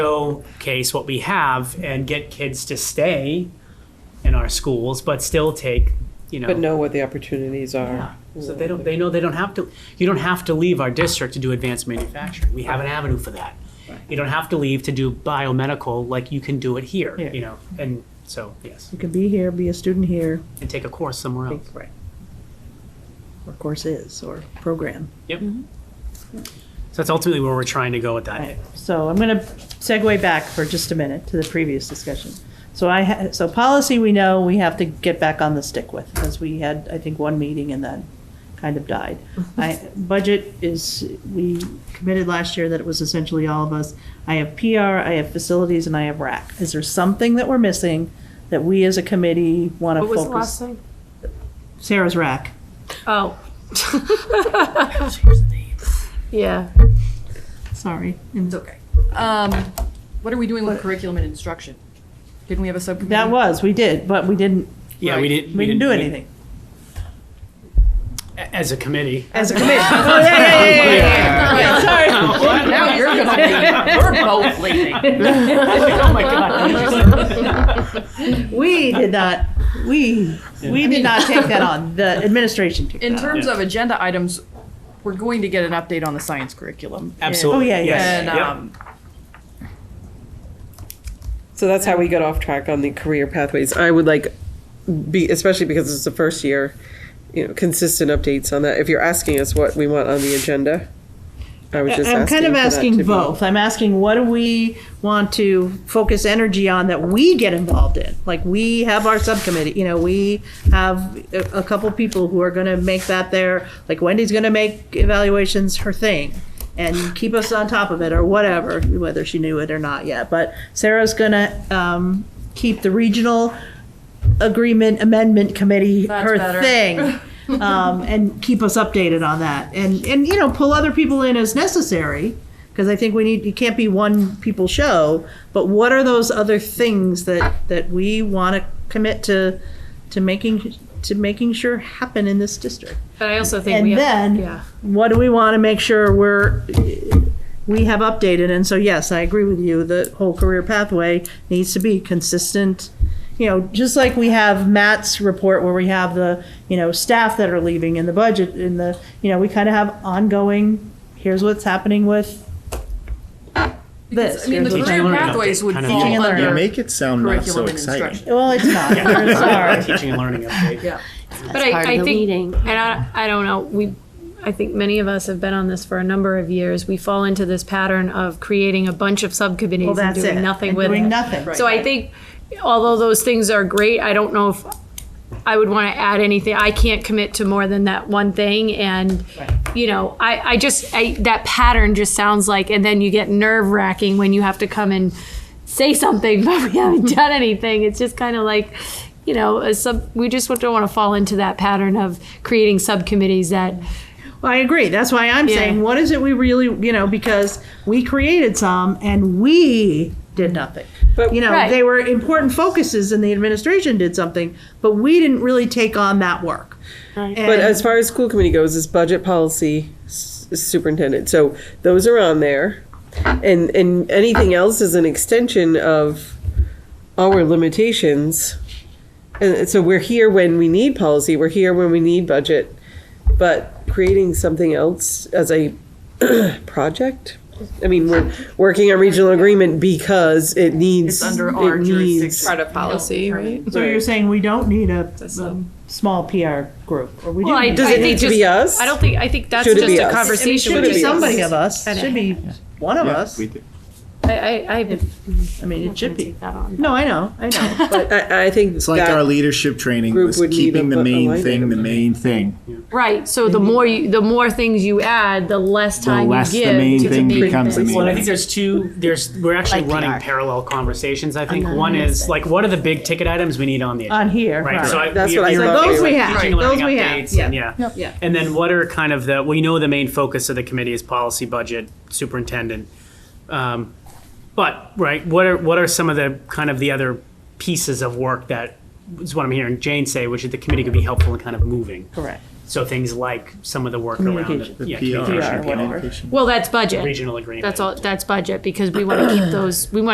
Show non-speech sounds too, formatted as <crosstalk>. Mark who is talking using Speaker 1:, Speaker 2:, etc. Speaker 1: showcase what we have and get kids to stay in our schools, but still take, you know.
Speaker 2: But know what the opportunities
Speaker 1: Yeah.
Speaker 2: are.
Speaker 1: So they don't, they know they don't have to, you don't have to leave our district to do advanced manufacturing. We have an avenue for that. You don't have to leave to do biomedical like you can do it here,
Speaker 3: Yeah.
Speaker 1: you know, and so, yes,
Speaker 3: You can be here, be a student here,
Speaker 1: and take a course somewhere
Speaker 4: Oh.
Speaker 1: else.
Speaker 3: right. Or course is, or program.
Speaker 1: Yep. So that's ultimately where we're trying to go with that.
Speaker 3: Right. So I'm going to segue back for just a minute to the previous discussion. So I, ha- so policy we know we have to get back on the stick with, because we had, I think, one meeting and then kind of died.
Speaker 4: <laughs>
Speaker 3: I, budget is, we committed last year that it was essentially all of us. I have PR, I have facilities, and I have RAC. Is there something that we're missing that we as a committee want to
Speaker 4: What
Speaker 3: focus?
Speaker 4: was the last thing?
Speaker 3: Sarah's RAC.
Speaker 4: Oh. Yeah.
Speaker 3: Sorry.
Speaker 5: It's okay. Um, what are we doing with curriculum and instruction? Didn't we have a subcommittee?
Speaker 3: That was, we did, but we didn't,
Speaker 1: Yeah, we didn't.
Speaker 3: we didn't do anything.
Speaker 1: As a committee. <laughs>
Speaker 3: As a committee. Oh, yeah, yeah, yeah, yeah, yeah, yeah. Sorry.
Speaker 5: <laughs> Now you're gonna be, we're both leaving.
Speaker 1: Oh, my
Speaker 3: <laughs>
Speaker 1: God.
Speaker 3: We did not, we, we did not take that on. The administration took
Speaker 5: In
Speaker 3: that on.
Speaker 5: terms of agenda items, we're going to get an update on the science curriculum.
Speaker 1: <laughs> Absolutely.
Speaker 3: Oh, yeah, yeah,
Speaker 1: yes.
Speaker 5: And,
Speaker 1: Yep.
Speaker 5: um,
Speaker 2: So that's how we got off track on the career pathways. I would like, be especially because it's the first year, you know, consistent updates on that. If you're asking us what we want on the agenda, I was just
Speaker 3: I'm kind of
Speaker 2: for that to
Speaker 3: asking
Speaker 2: be-
Speaker 3: both. I'm asking what do we want to focus energy on that we get involved in? Like we have our subcommittee, you know, we have a, a couple people who are going to make that their like Wendy's going to make evaluations her thing and keep us on top of it or whatever, whether she knew it or not yet. But Sarah's going to um, keep the regional agreement amendment committee
Speaker 5: That's
Speaker 3: her
Speaker 5: better.
Speaker 3: thing
Speaker 5: <laughs>
Speaker 3: um, and keep us updated on that and and you know pull other people in as necessary because i think we need it can't be one people show but what are those other things that that we want to commit to to making to making sure happen in this district
Speaker 4: But I also think
Speaker 3: And
Speaker 4: we
Speaker 3: then-
Speaker 4: have, yeah.
Speaker 3: what do we want to make sure we're we have updated and so yes i agree with you the whole career pathway needs to be consistent you know just like we have matt's report where we have the you know staff that are leaving and the budget and the you know we kind of have ongoing here's what's happening with
Speaker 5: because,
Speaker 3: this
Speaker 5: I mean, the
Speaker 1: Teaching
Speaker 3: here's what's-
Speaker 5: career
Speaker 1: and learning
Speaker 5: pathways
Speaker 1: update,
Speaker 5: would
Speaker 1: kind of
Speaker 3: Teaching
Speaker 5: fall
Speaker 3: and learning.
Speaker 6: Yeah,
Speaker 5: under
Speaker 6: make it sound not so
Speaker 5: curriculum and
Speaker 6: exciting.
Speaker 5: instruction.
Speaker 3: well it's not I'm
Speaker 1: <laughs>
Speaker 3: sorry
Speaker 1: Teaching and learning update.
Speaker 5: Yeah.
Speaker 4: But I, I think, and I, I don't know, we, I think many of us have been on this for a number of years. We fall into this pattern of creating a bunch of
Speaker 3: well
Speaker 4: subcommittees and
Speaker 3: that's it
Speaker 4: doing nothing
Speaker 3: And
Speaker 4: with it.
Speaker 3: doing nothing
Speaker 4: So I think, although those things are great, I don't know if I would want to add anything. I can't commit to more than that one thing, and you know, I I just I, that pattern just sounds like, and then you get nerve wracking when you have to come and say something, <laughs> but we haven't done anything. It's just kind of like. You know, a sub, we just don't want to fall into that pattern of creating subcommittees that
Speaker 3: Well, I agree. That's why I'm
Speaker 4: Yeah.
Speaker 3: saying, what is it we really, you know, because we created some and we did nothing. But, you know,
Speaker 4: Right.
Speaker 3: they were important focuses and the administration did something, but we didn't really take on that work. And-
Speaker 2: But as far as school committee goes, is budget policy s- superintendent. So those are on there. And, and anything else is an extension of our limitations. And so we're here when we need policy, we're here when we need budget. But creating something else as a <clears throat> project? I mean, we're working on regional agreement because it needs.
Speaker 5: It's under our
Speaker 2: it needs-
Speaker 5: jurisdiction.
Speaker 7: part of policy, right?
Speaker 3: so you're saying we don't need a,
Speaker 7: That's
Speaker 3: a
Speaker 7: um,
Speaker 3: small PR group, or we do.
Speaker 4: Well, I,
Speaker 3: need-
Speaker 2: Does
Speaker 4: I
Speaker 2: it
Speaker 4: think
Speaker 2: need to
Speaker 4: just,
Speaker 2: be us?
Speaker 4: I don't think I think that's
Speaker 2: Should it
Speaker 4: just
Speaker 2: be us?
Speaker 3: I
Speaker 4: a
Speaker 3: mean, it
Speaker 4: conversation.
Speaker 3: should
Speaker 4: which
Speaker 3: be
Speaker 4: is-
Speaker 3: somebody of us.
Speaker 4: And-
Speaker 3: Should be one of us.
Speaker 6: We did.
Speaker 4: I, I, I,
Speaker 3: I mean, it should be.
Speaker 4: that on.
Speaker 3: No, I know, I know.
Speaker 2: But I, I think.
Speaker 6: It's like
Speaker 2: that-
Speaker 6: our leadership training
Speaker 2: group
Speaker 6: was
Speaker 2: would need
Speaker 6: keeping
Speaker 2: a-
Speaker 6: the
Speaker 2: a
Speaker 6: main
Speaker 2: line
Speaker 6: thing the main thing.
Speaker 4: Right. So the more you, the more things you add, the less
Speaker 6: The
Speaker 4: time
Speaker 6: less
Speaker 4: you
Speaker 6: the
Speaker 4: give
Speaker 6: main
Speaker 4: to
Speaker 6: thing
Speaker 4: the main
Speaker 6: becomes the
Speaker 4: thing.
Speaker 1: Well, and I
Speaker 6: main
Speaker 1: think
Speaker 6: thing.
Speaker 1: there's two, there's, we're actually running parallel conversations, I think. One is, like, what are the big ticket items we need on the agenda?
Speaker 3: On here,
Speaker 1: Right, so
Speaker 3: right.
Speaker 1: I.
Speaker 2: That's
Speaker 1: we-
Speaker 2: what I
Speaker 1: we were
Speaker 2: thought
Speaker 1: both
Speaker 2: they
Speaker 3: Those we
Speaker 2: were-
Speaker 3: have,
Speaker 1: teaching and
Speaker 3: those
Speaker 1: learning
Speaker 3: we
Speaker 1: updates, and
Speaker 3: have, yeah.
Speaker 1: yeah.
Speaker 3: Yeah.
Speaker 1: And then what are kind of the, well, you know, the main focus of the committee is policy, budget, superintendent. Um, But, right, what are, what are some of the, kind of the other pieces of work that, is what I'm hearing Jane say, which is the committee could be helpful in kind of moving.
Speaker 3: Correct.
Speaker 1: So things like some of the work around it.
Speaker 2: Communication.
Speaker 6: The
Speaker 1: yeah,
Speaker 6: PR,
Speaker 1: communication,
Speaker 2: whatever.
Speaker 6: communication.
Speaker 4: Well, that's budget.
Speaker 1: Regional agreement.
Speaker 4: That's all, that's budget because we want to keep those, we want